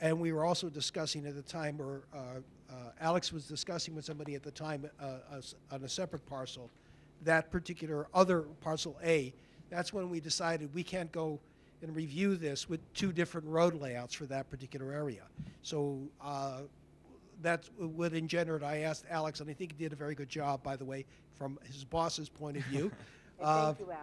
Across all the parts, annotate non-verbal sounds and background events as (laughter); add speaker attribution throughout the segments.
Speaker 1: And we were also discussing at the time, or uh, uh, Alex was discussing with somebody at the time uh, us- on a separate parcel, that particular other parcel A. That's when we decided we can't go and review this with two different road layouts for that particular area. So uh, that's what engendered, I asked Alex, and I think he did a very good job, by the way, from his boss's point of view. Uh,
Speaker 2: And Thank you,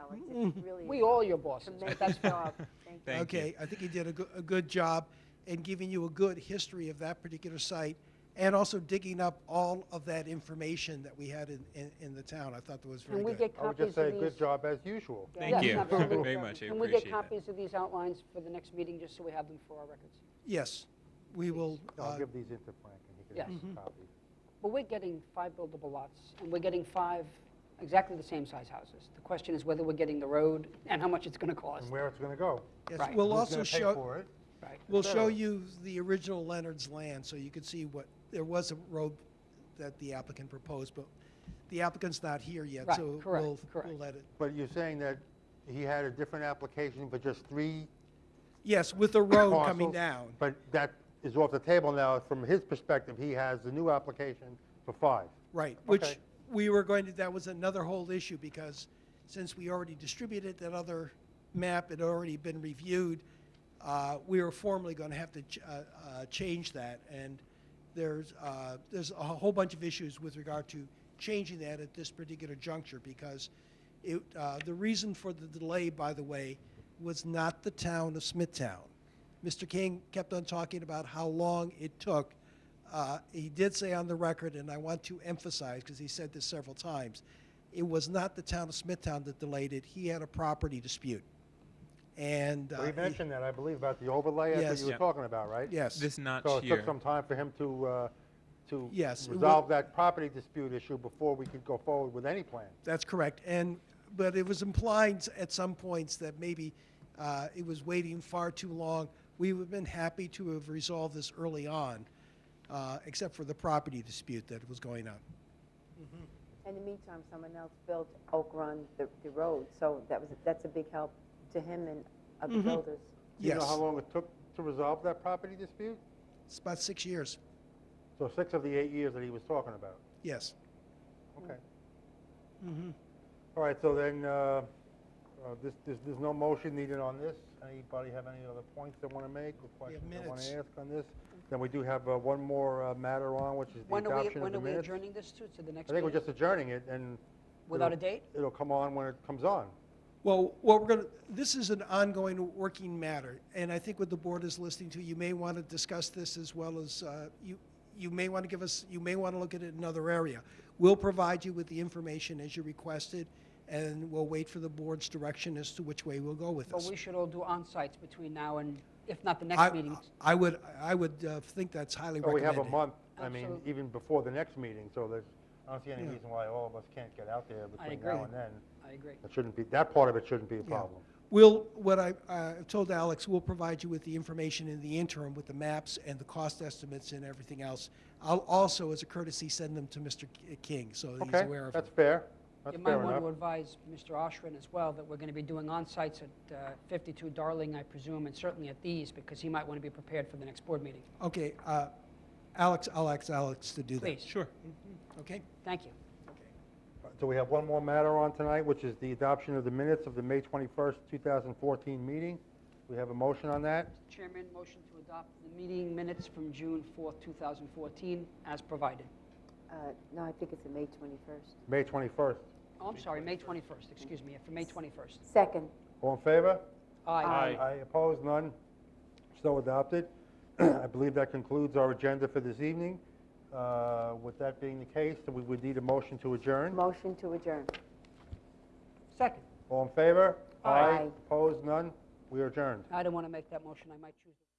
Speaker 2: Alex. It's really.
Speaker 3: We all your bosses.
Speaker 2: Tremendous
Speaker 3: (laughs)
Speaker 2: job. Thank you.
Speaker 4: Thank you.
Speaker 1: Okay, I think he did a, go- a good job in giving you a good history of that particular site and also digging up all of that information that we had in, in, in the town. I thought that was very
Speaker 3: Can we
Speaker 1: good.
Speaker 3: get
Speaker 5: I would
Speaker 3: copies
Speaker 5: just
Speaker 3: of these?
Speaker 5: say, good job as usual.
Speaker 3: Yeah,
Speaker 4: Thank you.
Speaker 3: absolutely.
Speaker 4: Very much. I
Speaker 3: Can we get
Speaker 4: appreciate that.
Speaker 3: copies of these outlines for the next meeting, just so we have them for our records?
Speaker 1: yes, we will.
Speaker 5: (laughs) I'll
Speaker 1: uh,
Speaker 5: give these into Frank and he
Speaker 3: Yes. Mm-hmm.
Speaker 5: can make a copy.
Speaker 3: But we're getting five buildable lots, and we're getting five exactly the same size houses. The question is whether we're getting the road and how much it's going to cost.
Speaker 5: And where it's going to go.
Speaker 1: yes,
Speaker 3: right.
Speaker 1: We'll
Speaker 5: Who's
Speaker 1: also
Speaker 5: gonna pay
Speaker 1: show.
Speaker 5: for it?
Speaker 3: Right.
Speaker 1: We'll show
Speaker 5: Yeah.
Speaker 1: you the original Leonard's land, so you can see what there was a road that the applicant proposed, but the applicant's not here yet,
Speaker 3: Right,
Speaker 1: so
Speaker 3: correct,
Speaker 1: we'll
Speaker 3: correct.
Speaker 1: we'll let it.
Speaker 5: But you're saying that he had a different application for just three
Speaker 1: Yes, with the road
Speaker 5: parcels?
Speaker 1: coming down.
Speaker 5: But that is off the table now. From his perspective, he has the new application for five.
Speaker 1: Right, which
Speaker 5: Okay.
Speaker 1: we were going to, that was another whole issue, because since we already distributed that other map, it had already been reviewed, uh, we were formally going to have to ch- uh, uh, change that, and there's, uh, there's a whole bunch of issues with regard to changing that at this particular juncture, because it, uh, the reason for the delay, by the way, was not the town of Smithtown. Mr. King kept on talking about how long it took. Uh, He did say on the record, and I want to emphasize, because he said this several times, it was not the town of Smithtown that delayed it. He had a property dispute. And. uh,
Speaker 5: We
Speaker 1: he-
Speaker 5: mentioned that, I believe, about the overlay that's what
Speaker 1: Yes.
Speaker 5: you were
Speaker 4: Yeah.
Speaker 5: talking about, right?
Speaker 1: Yes.
Speaker 4: This notch
Speaker 5: So it
Speaker 4: here.
Speaker 5: took some time for him to, uh, to
Speaker 1: Yes, it wa-
Speaker 5: resolve that property dispute issue before we could go forward with any plan.
Speaker 1: That's correct. And, but it was implied s- at some points that maybe uh, it was waiting far too long. We would have been happy to have resolved this early on, uh, except for the property dispute that was going on.
Speaker 2: In the meantime, someone else built Oak Run, the, the road, so that was, that's a big help to him and other builders.
Speaker 5: Do you know
Speaker 1: Yes.
Speaker 5: how long it took to resolve that property dispute?
Speaker 1: It's about six years.
Speaker 5: So six of the eight years that he was talking about.
Speaker 1: Yes.
Speaker 5: Okay. All right, so then, uh, uh, this, this- there's no motion needed on this. Anybody have any other points they want to make or
Speaker 1: We have
Speaker 5: questions they want
Speaker 1: minutes.
Speaker 5: to ask on this? Then we do have uh, one more uh, matter on, which is the
Speaker 3: When are we,
Speaker 5: adoption of
Speaker 3: when
Speaker 5: the
Speaker 3: are we
Speaker 5: minutes.
Speaker 3: adjourning this to, to the next
Speaker 5: I think
Speaker 3: meeting?
Speaker 5: we're just adjourning it, and...
Speaker 3: Without a
Speaker 5: it'll-
Speaker 3: date?
Speaker 5: It'll come on when it comes on.
Speaker 1: Well, what we're going to, this is an ongoing working matter, and I think what the board is listening to, you may want to discuss this as well as, uh, you, you may want to give us, you may want to look at it in another area. We'll provide you with the information as you requested, and we'll wait for the board's direction as to which way we'll go with
Speaker 3: But
Speaker 1: this.
Speaker 3: we should all do on sites between now and, if not the next
Speaker 1: I,
Speaker 3: meeting.
Speaker 1: I would, I would uh, think that's highly
Speaker 5: So we
Speaker 1: recommended.
Speaker 5: have a month, I mean,
Speaker 3: Absolutely.
Speaker 5: even before the next meeting, so there's, I don't see any
Speaker 1: Yeah.
Speaker 5: reason why all of us can't get out there between
Speaker 3: agree.
Speaker 5: now and then.
Speaker 3: I agree.
Speaker 5: That shouldn't be, that part of it shouldn't be a
Speaker 1: Yeah.
Speaker 5: problem.
Speaker 1: We'll, what I, I told Alex, we'll provide you with the information in the interim with the maps and the cost estimates and everything else. I'll also, as a courtesy, send them to Mr. K- King, so that he's
Speaker 5: Okay,
Speaker 1: aware of them.
Speaker 5: that's fair. That's
Speaker 3: You might
Speaker 5: fair
Speaker 3: want to
Speaker 5: enough.
Speaker 3: advise Mr. Oshrin as well that we're going to be doing on sites at uh, 52 Darling, I presume, and certainly at these, because he might want to be prepared for the next board meeting.
Speaker 1: Okay, uh, Alex, I'll ask Alex to do that.
Speaker 3: Please.
Speaker 4: Sure.
Speaker 1: Okay?
Speaker 3: Thank you.
Speaker 5: So we have one more matter on tonight, which is the adoption of the minutes of the May 21st, 2014 meeting. We have a motion on that.
Speaker 3: Chairman, motion to adopt the meeting minutes from June 4th, 2014, as provided.
Speaker 2: Uh, no, I think it's a May 21st.
Speaker 5: May 21st.
Speaker 3: Oh, I'm sorry, May 21st, excuse me, for May 21st.
Speaker 2: Second,
Speaker 5: All in favor?
Speaker 3: Aye.
Speaker 5: I oppose none. So adopted. (clears throat) I believe that concludes our agenda for this evening. Uh, With that being the case, then we would need a motion to adjourn.
Speaker 2: motion to adjourn.
Speaker 3: Second.
Speaker 5: All in favor?
Speaker 2: Aye.
Speaker 5: Opposed? None? We are adjourned.
Speaker 3: I don't want to make that motion, I might choose.